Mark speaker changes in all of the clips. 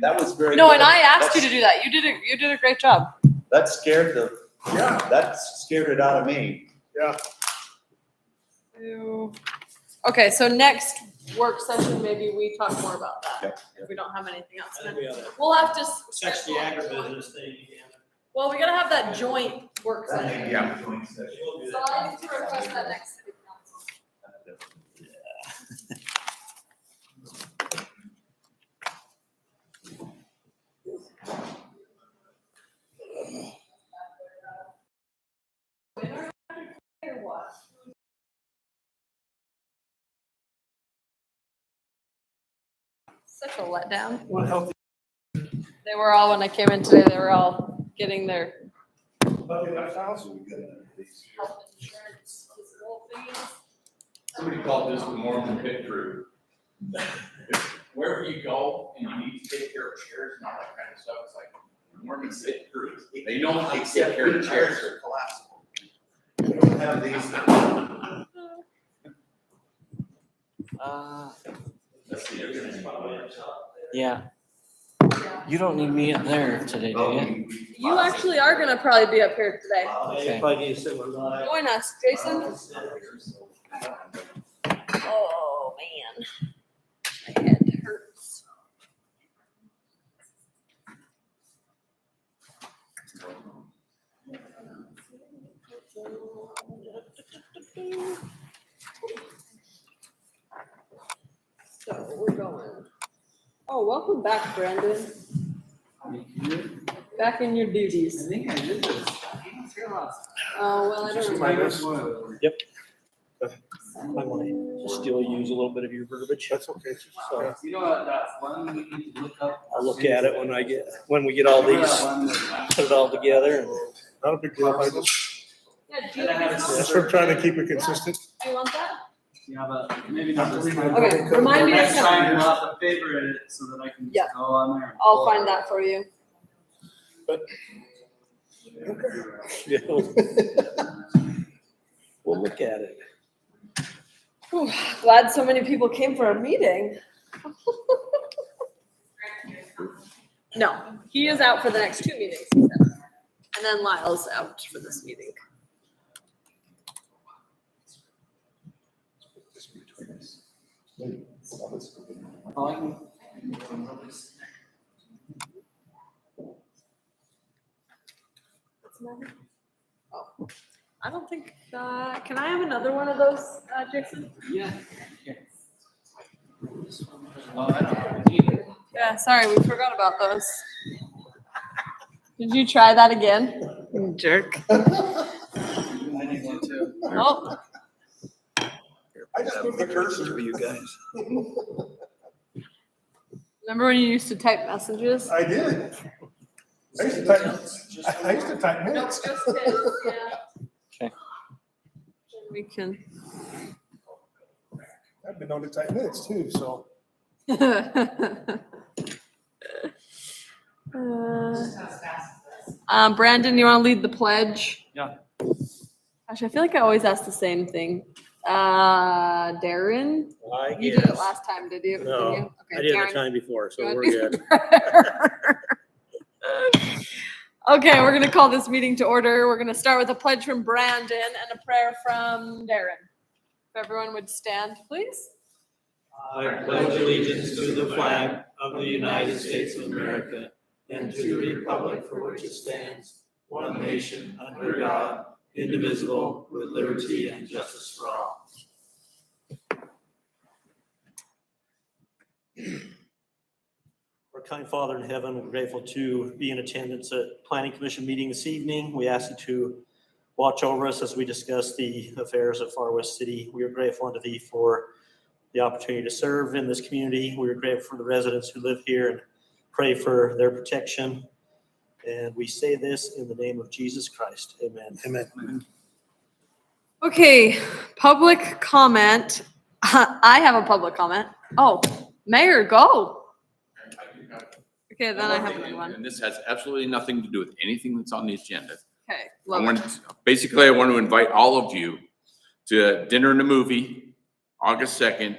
Speaker 1: That was very.
Speaker 2: No,
Speaker 1: good.
Speaker 2: and I asked you to
Speaker 1: That's-
Speaker 2: do that. You did a, you did a great job.
Speaker 1: That scared the,
Speaker 3: Yeah,
Speaker 1: that scared it out of me.
Speaker 2: So- Okay, so next work session, maybe we talk more about that.
Speaker 1: Yep,
Speaker 2: If we don't have anything else.
Speaker 4: I think
Speaker 3: uh,
Speaker 4: we ought to
Speaker 2: We'll have to. s-
Speaker 4: Sex the agribusiness thing again.
Speaker 2: Well, we gotta have that joint work session.
Speaker 1: Yeah.
Speaker 4: We'll do
Speaker 2: So
Speaker 4: that.
Speaker 2: I need to request that next city council. Or what? Such a letdown.
Speaker 3: well, healthy,
Speaker 2: They were all, when I came in today, they were all getting their
Speaker 3: healthy lifestyles.
Speaker 2: health insurance, physical things.
Speaker 5: Somebody called this the Mormon pit crew. Wherever you go and you need to take care of chairs and all that kind of stuff, it's like Mormon pit crew. They know how to take care of chairs.
Speaker 1: are collapsible. We don't have these.
Speaker 6: Uh,
Speaker 5: That's the evidence, by the way.
Speaker 6: yeah,
Speaker 2: Yeah.
Speaker 6: you don't need me up there today, do you?
Speaker 2: You actually are gonna probably be up here today.
Speaker 4: If I do sit with my-
Speaker 2: Join us, Jason. Oh, man. My head hurts. So we're going. Oh, welcome back, Brandon. Back in your duties.
Speaker 1: think I did this.
Speaker 2: Oh, well, I don't remember.
Speaker 3: Yep.
Speaker 2: Someone-
Speaker 3: Still use a little bit of your verbiage. That's okay. So
Speaker 7: You know what, that's one we need to look up.
Speaker 3: I'll look at it when I get, when we get all these, put it all together and.
Speaker 8: Not a big deal. I just,
Speaker 2: Yeah, do you
Speaker 7: And I
Speaker 2: like
Speaker 7: have a
Speaker 2: this one?
Speaker 8: just for trying to keep it consistent.
Speaker 2: Do you want that?
Speaker 7: Yeah, but maybe not this time.
Speaker 2: Okay, remind me of
Speaker 7: Next time,
Speaker 2: something.
Speaker 7: you'll have to favorite it so that I can
Speaker 2: Yeah.
Speaker 7: just go on there. and
Speaker 2: I'll
Speaker 7: pull it.
Speaker 2: find that for you.
Speaker 3: Yeah. We'll look at it.
Speaker 2: Whew, Glad so many people came for a meeting. No, he is out for the next two meetings. he said. And then Lyle's out for this meeting.
Speaker 7: Oh, I can-
Speaker 2: What's the matter? Oh, I don't think, uh, can I have another one of those, uh, Jason?
Speaker 7: Yeah. here. Well, I don't have it either.
Speaker 2: Yeah, sorry, we forgot about those. Did you try that again? Jerk.
Speaker 7: I need one too.
Speaker 2: Oh,
Speaker 8: I just moved the cursor.
Speaker 3: you guys.
Speaker 2: remember when you used to type messages?
Speaker 8: I did. I used to type, I- I used to type minutes.
Speaker 6: Okay.
Speaker 2: We can.
Speaker 8: I've been known to type minutes too, so.
Speaker 2: Uh, Um, Brandon, you wanna lead the pledge?
Speaker 7: Yeah.
Speaker 2: Gosh, I feel like I always ask the same thing. Uh, Darren,
Speaker 3: I
Speaker 2: you did it
Speaker 3: guess.
Speaker 2: last time, did you? Did
Speaker 3: No,
Speaker 2: you?
Speaker 3: I
Speaker 2: Okay,
Speaker 3: did
Speaker 2: Darren,
Speaker 3: it the time before,
Speaker 2: you
Speaker 3: so
Speaker 2: wanna
Speaker 3: we're
Speaker 2: do
Speaker 3: good.
Speaker 2: the prayer? Okay, we're gonna call this meeting to order. We're gonna start with a pledge from Brandon and a prayer from Darren. If everyone would stand, please.
Speaker 4: I pledge allegiance to the flag of the United States of America and to the republic for which it stands, one nation, under God, indivisible, with liberty and justice for all. Our kind Father in heaven, we're grateful to be in attendance at Planning Commission meeting this evening. We ask you to watch over us as we discuss the affairs of Far West City. We are grateful unto thee for the opportunity to serve in this community. We are grateful for the residents who live here and pray for their protection. And we say this in the name of Jesus Christ. Amen.
Speaker 3: Amen.
Speaker 2: Okay, public comment. I have a public comment. Oh, Mayor, go.
Speaker 5: I do have-
Speaker 2: Okay, then I have
Speaker 5: thing,
Speaker 2: another
Speaker 5: and-
Speaker 2: one.
Speaker 5: And this has absolutely nothing to do with anything that's on the agenda.
Speaker 2: Okay,
Speaker 5: I
Speaker 2: love
Speaker 5: want,
Speaker 2: it.
Speaker 5: basically, I want to invite all of you to dinner and a movie, August second,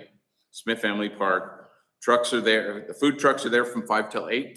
Speaker 5: Smith Family Park. Trucks are there, the food trucks are there from five till eight.